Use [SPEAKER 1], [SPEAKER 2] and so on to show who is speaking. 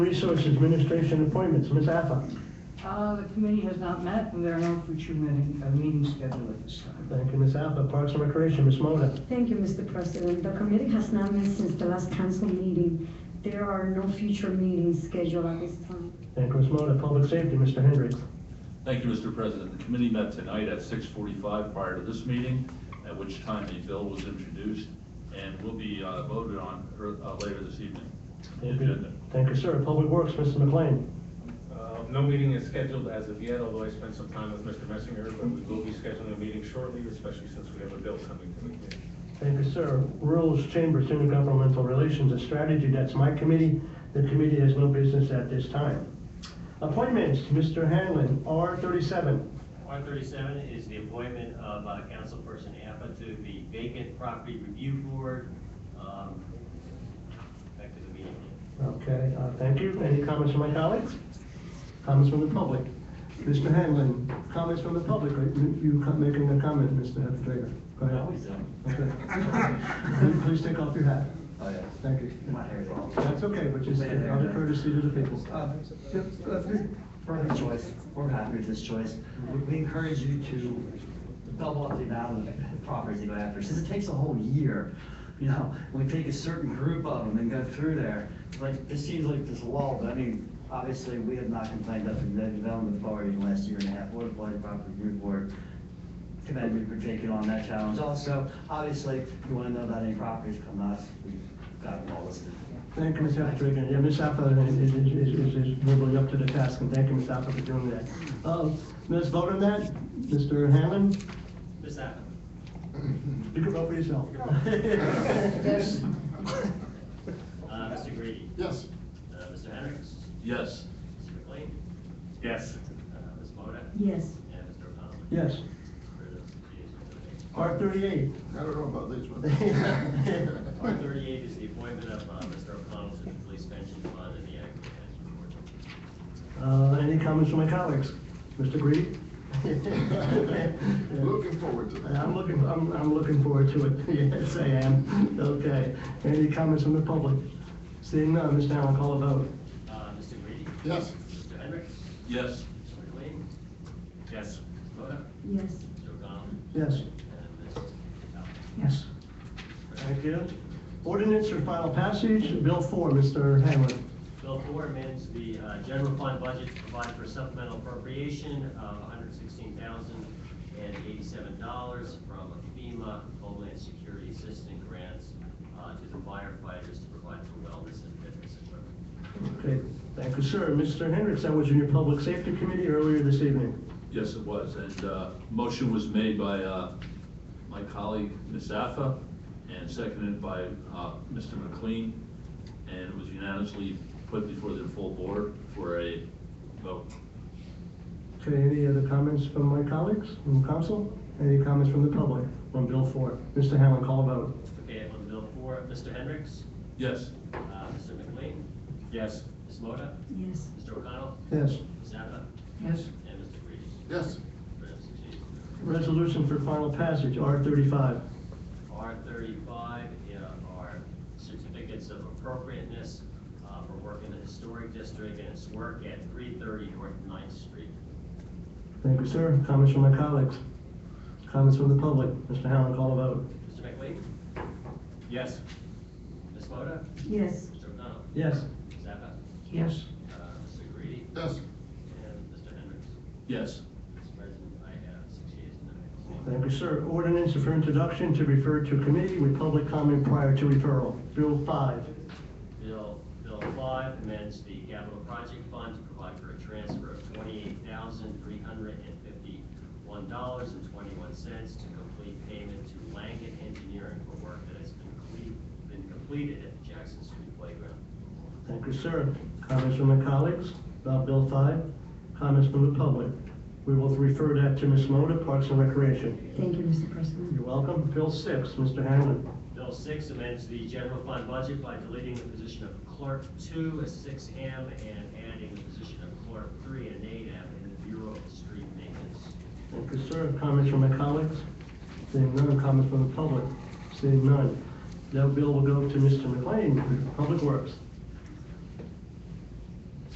[SPEAKER 1] Resource Administration appointments, Ms. Affa.
[SPEAKER 2] Uh, The committee has not met, and there are no future meeting- uh, meetings scheduled at this time.
[SPEAKER 1] Thank you, Ms. Affa. Parks and Recreation, Ms. Moda.
[SPEAKER 3] Thank you, Mr. President. The committee has not met since the last council meeting. There are no future meetings scheduled at this time.
[SPEAKER 1] Thank you, Ms. Moda. Public Safety, Mr. Hendricks.
[SPEAKER 4] Thank you, Mr. President. The committee met tonight at 6:45 prior to this meeting, at which time a bill was introduced and will be uh, voted on uh, later this evening. The
[SPEAKER 1] Thank you.
[SPEAKER 4] agenda.
[SPEAKER 1] Thank you, sir. Public Works, Mr. McLean.
[SPEAKER 5] Uh, No meeting is scheduled as of yet, although I spent some time with Mr. Messinger, but we will be scheduling a meeting shortly, especially since we have a bill coming to the committee.
[SPEAKER 1] Thank you, sir. Rules, Chambers, Intergovernmental Relations, and Strategy, that's my committee. The committee has no business at this time. Appointments, Mr. Hanlon, R thirty-seven.
[SPEAKER 6] R thirty-seven is the appointment of uh, Councilperson Appa to the vacant property review board. Um, Back to the meeting.
[SPEAKER 1] Okay, uh, thank you. Any comments from my colleagues? Comments from the public? Mr. Hanlon, comments from the public, right? You- You co- making a comment, Mr. Freire? Go ahead. Okay. Please take off your hat.
[SPEAKER 7] Oh, yeah.
[SPEAKER 1] Thank you.
[SPEAKER 7] My hair is all-
[SPEAKER 1] That's okay, but just uh, out of courtesy to the people.
[SPEAKER 7] Uh, yep, uh, For her choice, we're happy with this choice. We- We encourage you to double up the amount of properties you go after, since it takes a whole year. You know, we take a certain group of them and go through there. Like, this seems like this lull, but I mean, obviously, we have not complained of the development authority in the last year and a half, or the Blighted Property Review Board. Commend you for taking on that challenge. Also, obviously, if you want to know about any properties, come us, we've got them all listed.
[SPEAKER 1] Thank you, Ms. Aftergan. Yeah, Ms. After is, is, is- is, is really up to the task, and thank you, Ms. After, for doing that. Um, let's vote on that. Mr. Hanlon,
[SPEAKER 6] Ms. Appa?
[SPEAKER 1] you can vote for yourself.
[SPEAKER 3] Yes.
[SPEAKER 6] Uh, Mr. Grady?
[SPEAKER 8] Yes.
[SPEAKER 6] Uh, Mr. Hendricks?
[SPEAKER 4] Yes,
[SPEAKER 6] Mr. McLean?
[SPEAKER 5] Yes.
[SPEAKER 6] Uh, Ms. Moda?
[SPEAKER 3] Yes.
[SPEAKER 6] And Mr. O'Connell?
[SPEAKER 1] Yes.
[SPEAKER 6] For the liaison to the vacant.
[SPEAKER 1] R thirty-eight.
[SPEAKER 8] I don't know about these ones.
[SPEAKER 6] R thirty-eight is the appointment of uh, Mr. O'Connell to the police pension fund and the active pension
[SPEAKER 1] Uh,
[SPEAKER 6] board.
[SPEAKER 1] any comments from my colleagues? Mr. Grady?
[SPEAKER 8] Looking forward to that.
[SPEAKER 1] I'm looking, I'm, I'm looking forward to it. Yes, I am. Okay. Any comments from the public? Seeing none, Mr. Allen, call a vote.
[SPEAKER 6] Uh, Mr. Grady?
[SPEAKER 8] Yes.
[SPEAKER 6] Mr. Hendricks?
[SPEAKER 4] yes.
[SPEAKER 6] Mr. McLean?
[SPEAKER 5] Yes.
[SPEAKER 6] Ms. Moda?
[SPEAKER 3] Yes.
[SPEAKER 6] Mr. O'Connell?
[SPEAKER 1] Yes.
[SPEAKER 6] And Ms. Appa?
[SPEAKER 1] Yes. Thank you. Ordinance for final passage, Bill 4, Mr. Hanlon.
[SPEAKER 6] Bill four amends the uh, general fund budget to provide for supplemental appropriation of $116,087 from FEMA Homeland Security Assistance Grants uh, to the firefighters to provide for wellness and fitness equipment.
[SPEAKER 1] Okay, thank you, sir. Mr. Hendricks, that was in your Public Safety Committee earlier this evening.
[SPEAKER 4] Yes, it was. And uh, motion was made by uh, my colleague, Ms. Affa, and seconded by uh, Mr. McLean, and it was unanimously put before the full board for a vote.
[SPEAKER 1] Okay, any other comments from my colleagues, from council? Any comments from the public on Bill 4? Mr. Hanlon, call a vote.
[SPEAKER 6] Okay, on Bill four, Mr. Hendricks,
[SPEAKER 4] Yes,
[SPEAKER 6] uh, Mr. McLean,
[SPEAKER 5] Yes.
[SPEAKER 6] Ms. Moda,
[SPEAKER 3] Yes.
[SPEAKER 6] Mr. O'Connell,
[SPEAKER 1] Yes.
[SPEAKER 6] Ms. Zappa,
[SPEAKER 2] Yes.
[SPEAKER 6] and Mr. Reed.
[SPEAKER 8] Yes.
[SPEAKER 6] For the six yeas.
[SPEAKER 1] Resolution for final passage, R35.
[SPEAKER 6] R thirty-five uh, are certificates of appropriateness uh, for work in the historic district and its work at three thirty North Ninth Street.
[SPEAKER 1] Thank you, sir. Comments from my colleagues? Comments from the public? Mr. Hanlon, call a vote.
[SPEAKER 6] Mr. McLean,
[SPEAKER 5] Yes.
[SPEAKER 6] Ms. Moda,
[SPEAKER 3] Yes.
[SPEAKER 6] Mr. O'Connell,
[SPEAKER 1] Yes.
[SPEAKER 6] Ms. Zappa,
[SPEAKER 2] Yes.
[SPEAKER 6] uh, Mr. Grady,
[SPEAKER 8] Yes.
[SPEAKER 6] and Mr. Hendricks.
[SPEAKER 4] yes.
[SPEAKER 6] Mr. President, I have six yeas and no nays.
[SPEAKER 1] Thank you, sir. Ordinance for introduction to refer to committee with public comment prior to referral. Bill 5.
[SPEAKER 6] Bill, Bill five amends the capital project fund to provide for a transfer of twenty-eight thousand, three hundred and fifty-one dollars and twenty-one cents to complete payment to Langen Engineering for work that has been cle- been completed at the Jackson Street Playground.
[SPEAKER 1] Thank you, sir. Comments from my colleagues about Bill 5? Comments from the public? We will refer that to Ms. Moda, Parks and Recreation.
[SPEAKER 3] Thank you, Mr. President.
[SPEAKER 1] You're welcome. Bill 6, Mr. Hanlon.
[SPEAKER 6] Bill six amends the general fund budget by deleting the position of clerk two, a six M, and adding the position of clerk three, an eight M, in the Bureau of Street Maintenance.
[SPEAKER 1] Thank you, sir. Comments from my colleagues? Seeing none. Comments from the public? Seeing none. That bill will go to Mr. McLean, Public Works.